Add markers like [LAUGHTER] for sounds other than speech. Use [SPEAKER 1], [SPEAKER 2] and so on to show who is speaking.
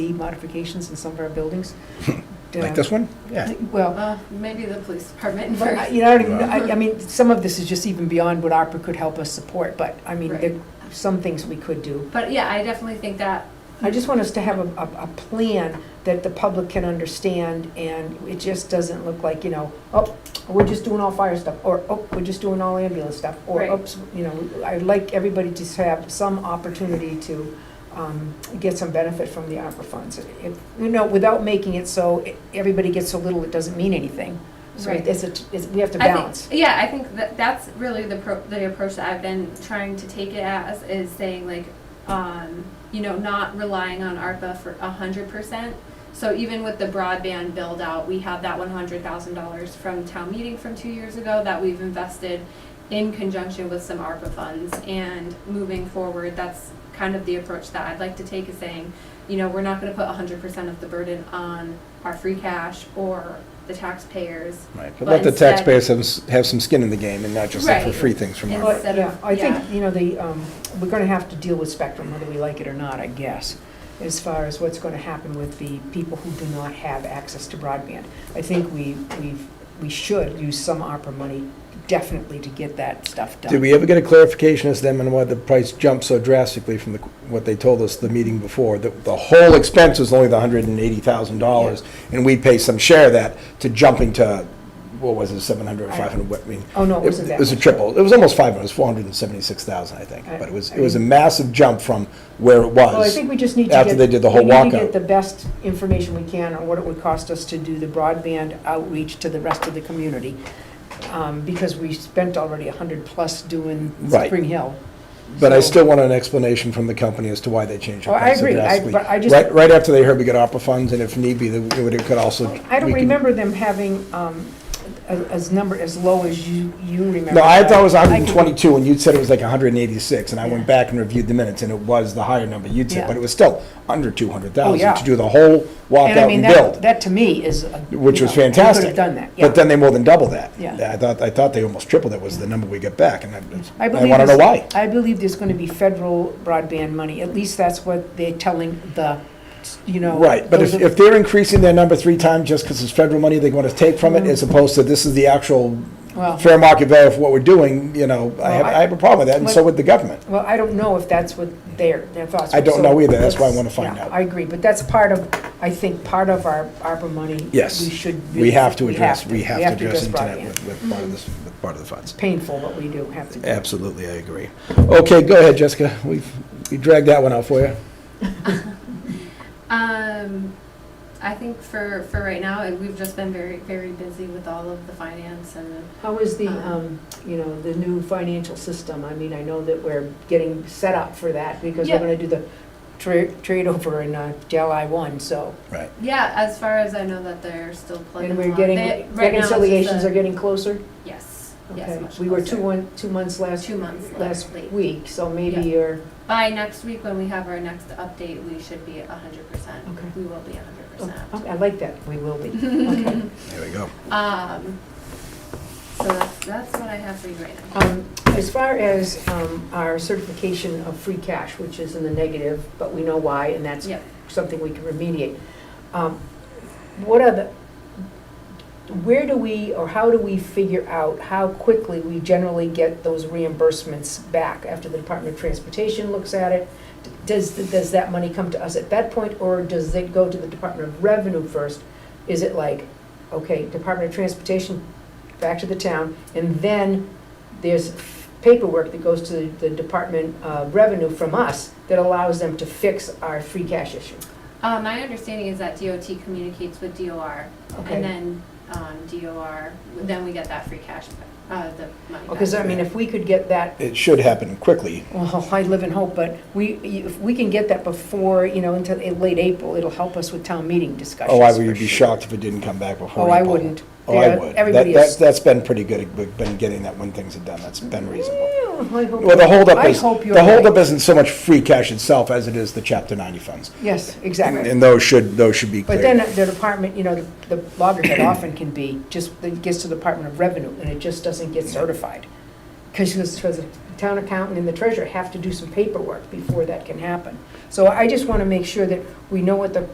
[SPEAKER 1] modifications in some of our
[SPEAKER 2] [LAUGHS]
[SPEAKER 1] buildings. Uh,
[SPEAKER 2] Like this one? Yeah.
[SPEAKER 1] Well,
[SPEAKER 3] Well, Uh, maybe the police department
[SPEAKER 1] but I-
[SPEAKER 3] first.
[SPEAKER 1] you know, I don't even- I, I mean, some of this is just even beyond what ARPA could help us support, but, I mean, there, some things we could do.
[SPEAKER 3] But yeah, I definitely think that,
[SPEAKER 1] I just want us to have a, a, a plan that the public can understand, and it just doesn't look like, you know, oh, we're just doing all fire stuff, or, oh, we're just doing all ambulance stuff, or,
[SPEAKER 3] Right.
[SPEAKER 1] oops, you know, I'd like everybody to have some opportunity to, um, get some benefit from the ARPA funds. If, you know, without making it so e- everybody gets so little, it doesn't mean anything. So
[SPEAKER 3] Right.
[SPEAKER 1] it's, a t- it's, we have to
[SPEAKER 3] I
[SPEAKER 1] balance.
[SPEAKER 3] think, yeah, I think that that's really the pro, the approach that I've been trying to take it as, is saying like, um, you know, not relying on ARPA for a hundred percent. So even with the broadband build out, we have that one hundred thousand dollars from town meeting from two years ago that we've invested in conjunction with some ARPA funds. And moving forward, that's kind of the approach that I'd like to take is saying, you know, we're not gonna put hundred percent of the burden on our free cash or the taxpayers.
[SPEAKER 2] Right, but let the
[SPEAKER 3] instead-
[SPEAKER 2] taxpayers have s- have some skin in the game and not just look for
[SPEAKER 3] Right.
[SPEAKER 2] free things from
[SPEAKER 3] And
[SPEAKER 2] our,
[SPEAKER 1] Well,
[SPEAKER 3] instead
[SPEAKER 1] yeah,
[SPEAKER 3] of-
[SPEAKER 1] I think,
[SPEAKER 3] yeah.
[SPEAKER 1] you know, the, um, we're gonna have to deal with Spectrum, whether we like it or not, I guess, as far as what's gonna happen with the people who do not have access to broadband. I think we, we've, we should use some ARPA money definitely to get that stuff done.
[SPEAKER 2] Did we ever get a clarification as to them and why the price jumped so drastically from the, what they told us the meeting before? That the whole expense was only the hundred and eighty thousand dollars, and we pay some share of that to jumping to, what was it, seven hundred,
[SPEAKER 1] I-
[SPEAKER 2] five hundred, what, I mean?
[SPEAKER 1] Oh, no, it wasn't that
[SPEAKER 2] It was a
[SPEAKER 1] much.
[SPEAKER 2] triple, it was almost five hundred, it was four hundred and seventy-six thousand, I think,
[SPEAKER 1] I-
[SPEAKER 2] but it was,
[SPEAKER 1] I
[SPEAKER 2] it was a
[SPEAKER 1] mean-
[SPEAKER 2] massive jump from where it was.
[SPEAKER 1] Well, I think we just need to get.
[SPEAKER 2] after they did the whole
[SPEAKER 1] We need to
[SPEAKER 2] walkout.
[SPEAKER 1] get the best information we can on what it would cost us to do the broadband outreach to the rest of the community. Um, because we spent already a hundred plus doing
[SPEAKER 2] Right.
[SPEAKER 1] Spring Hill.
[SPEAKER 2] But I
[SPEAKER 1] So-
[SPEAKER 2] still want an explanation from the company as to why they changed
[SPEAKER 1] Oh,
[SPEAKER 2] their
[SPEAKER 1] I
[SPEAKER 2] price so
[SPEAKER 1] agree. I-
[SPEAKER 2] drastically.
[SPEAKER 1] but I just-
[SPEAKER 2] Right, right after they heard we got ARPA funds, and if need be, they would- it could also.
[SPEAKER 1] I don't
[SPEAKER 2] we could-
[SPEAKER 1] remember them having um, a- as number, as low as you, you remember.
[SPEAKER 2] No, I thought it was
[SPEAKER 1] I can-
[SPEAKER 2] 122, and you'd said it was like 186, and I
[SPEAKER 1] Yeah.
[SPEAKER 2] went back and reviewed the minutes, and it was the higher number you'd
[SPEAKER 1] Yeah.
[SPEAKER 2] said, but it was still under
[SPEAKER 1] Oh,
[SPEAKER 2] 200,000
[SPEAKER 1] yeah.
[SPEAKER 2] to do the whole
[SPEAKER 1] And I
[SPEAKER 2] walkout
[SPEAKER 1] mean,
[SPEAKER 2] and
[SPEAKER 1] that,
[SPEAKER 2] build,
[SPEAKER 1] that to me is. a-
[SPEAKER 2] which
[SPEAKER 1] you
[SPEAKER 2] was
[SPEAKER 1] know, we
[SPEAKER 2] fantastic.
[SPEAKER 1] Could have done that,
[SPEAKER 2] But
[SPEAKER 1] yeah.
[SPEAKER 2] then they more than double that.
[SPEAKER 1] Yeah.
[SPEAKER 2] I thought, I thought they almost tripled it was the number we got back, and I I
[SPEAKER 1] believe
[SPEAKER 2] want to know
[SPEAKER 1] there's-
[SPEAKER 2] why.
[SPEAKER 1] I believe there's going to be federal broadband money. At least that's what they're telling the, you know.
[SPEAKER 2] Right, but if,
[SPEAKER 1] those of-
[SPEAKER 2] if they're increasing their number three times just because it's federal money they want to take from it, as opposed to this is the actual
[SPEAKER 1] Mm-hmm. Well-
[SPEAKER 2] fair market value for what we're doing, you know, I have,
[SPEAKER 1] Well, I-
[SPEAKER 2] I have a problem with that, and so
[SPEAKER 1] Well-
[SPEAKER 2] would the government.
[SPEAKER 1] Well, I don't know if that's what their, their thoughts.
[SPEAKER 2] I
[SPEAKER 1] were,
[SPEAKER 2] don't
[SPEAKER 1] so
[SPEAKER 2] know either. That's why I wanna
[SPEAKER 1] let's-
[SPEAKER 2] find
[SPEAKER 1] yeah,
[SPEAKER 2] out.
[SPEAKER 1] I agree, but that's part of, I think, part of our ARPA money.
[SPEAKER 2] Yes.
[SPEAKER 1] We should.
[SPEAKER 2] We have to
[SPEAKER 1] we
[SPEAKER 2] address, we have to address
[SPEAKER 1] broadband.
[SPEAKER 2] internet with, with part of this, with part of the funds.
[SPEAKER 1] It's painful, but we do have to. do it.
[SPEAKER 2] Absolutely, I agree. Okay, go ahead, Jessica, we've, we dragged that one out for you.
[SPEAKER 3] Um, I think for, for right now, and we've just been very, very busy with all of the finance and,
[SPEAKER 1] How is the, um,
[SPEAKER 3] Um,
[SPEAKER 1] you know, the new financial system? I mean, I know that we're getting set up for that because we're
[SPEAKER 3] Yeah.
[SPEAKER 1] gonna do the tra- trade over in uh, July one, so.
[SPEAKER 2] Right.
[SPEAKER 3] yeah, as far as I know that they're still plugging
[SPEAKER 1] And
[SPEAKER 3] along.
[SPEAKER 1] we're getting,
[SPEAKER 3] They- right now it's just
[SPEAKER 1] reconciliations
[SPEAKER 3] a-
[SPEAKER 1] are getting closer?
[SPEAKER 3] Yes,
[SPEAKER 1] Okay.
[SPEAKER 3] yes, much
[SPEAKER 1] We were two,
[SPEAKER 3] closer.
[SPEAKER 1] one, two months last,
[SPEAKER 3] Two months
[SPEAKER 1] last
[SPEAKER 3] late.
[SPEAKER 1] week, so maybe
[SPEAKER 3] Yeah.
[SPEAKER 1] you're,
[SPEAKER 3] By next week, when we have our next update, we should be a hundred percent.
[SPEAKER 1] Okay.
[SPEAKER 3] We will be a hundred
[SPEAKER 1] oh,
[SPEAKER 3] percent.
[SPEAKER 1] okay, I like that, we will be.
[SPEAKER 3] [LAUGHS]
[SPEAKER 1] Okay.
[SPEAKER 2] There we go.
[SPEAKER 3] Um, so that's, that's what I have for you right now.
[SPEAKER 1] Um, As far as um, our certification of free cash, which is in the negative, but we know why, and that's
[SPEAKER 3] Yep.
[SPEAKER 1] something we can remediate. Um, What are the, where do we, or how do we figure out how quickly we generally get those reimbursements back after the Department of Transportation looks at it? Does, does that money come to us at that point, or does it go to the Department of Revenue first? Is it like, okay, Department of Transportation, back to the town, and then there's paperwork that goes to the Department of Revenue from us that allows them to fix our free cash issue.
[SPEAKER 3] Uh, my understanding is that DOT communicates with DOR,
[SPEAKER 1] Okay.
[SPEAKER 3] and then, um, DOR, then we get that free cash, uh, the money back.
[SPEAKER 1] Because, I mean, if we could get that,
[SPEAKER 2] It should happen quickly.
[SPEAKER 1] well, [LAUGHS] I live in hope, but we, if we can get that before, you know, into late April, it'll help us with town meeting discussions.
[SPEAKER 2] Oh, I
[SPEAKER 1] for
[SPEAKER 2] would be
[SPEAKER 1] sure.
[SPEAKER 2] shocked if it didn't come back before
[SPEAKER 1] Oh, I
[SPEAKER 2] April.
[SPEAKER 1] wouldn't.
[SPEAKER 2] Oh, I
[SPEAKER 1] Yeah,
[SPEAKER 2] would.
[SPEAKER 1] Everybody
[SPEAKER 2] That- that-
[SPEAKER 1] is.
[SPEAKER 2] That's been pretty good, we've been getting that when things are done, that's been reasonable.
[SPEAKER 1] Yeah, I hope-
[SPEAKER 2] Well, the holdup
[SPEAKER 1] I
[SPEAKER 2] is,
[SPEAKER 1] hope you're
[SPEAKER 2] the holdup
[SPEAKER 1] right.
[SPEAKER 2] isn't so much free cash itself as it is the Chapter 90 funds.
[SPEAKER 1] Yes,
[SPEAKER 2] And
[SPEAKER 1] exactly.
[SPEAKER 2] and those should, those should be
[SPEAKER 1] But
[SPEAKER 2] cleared.
[SPEAKER 1] then the department, you know, the the loggerhead often can be, just, it gets to the Department of Revenue, and it just doesn't get certified. Because the town accountant and the treasurer have to do some paperwork before that can happen. So I just want to make sure that we know what the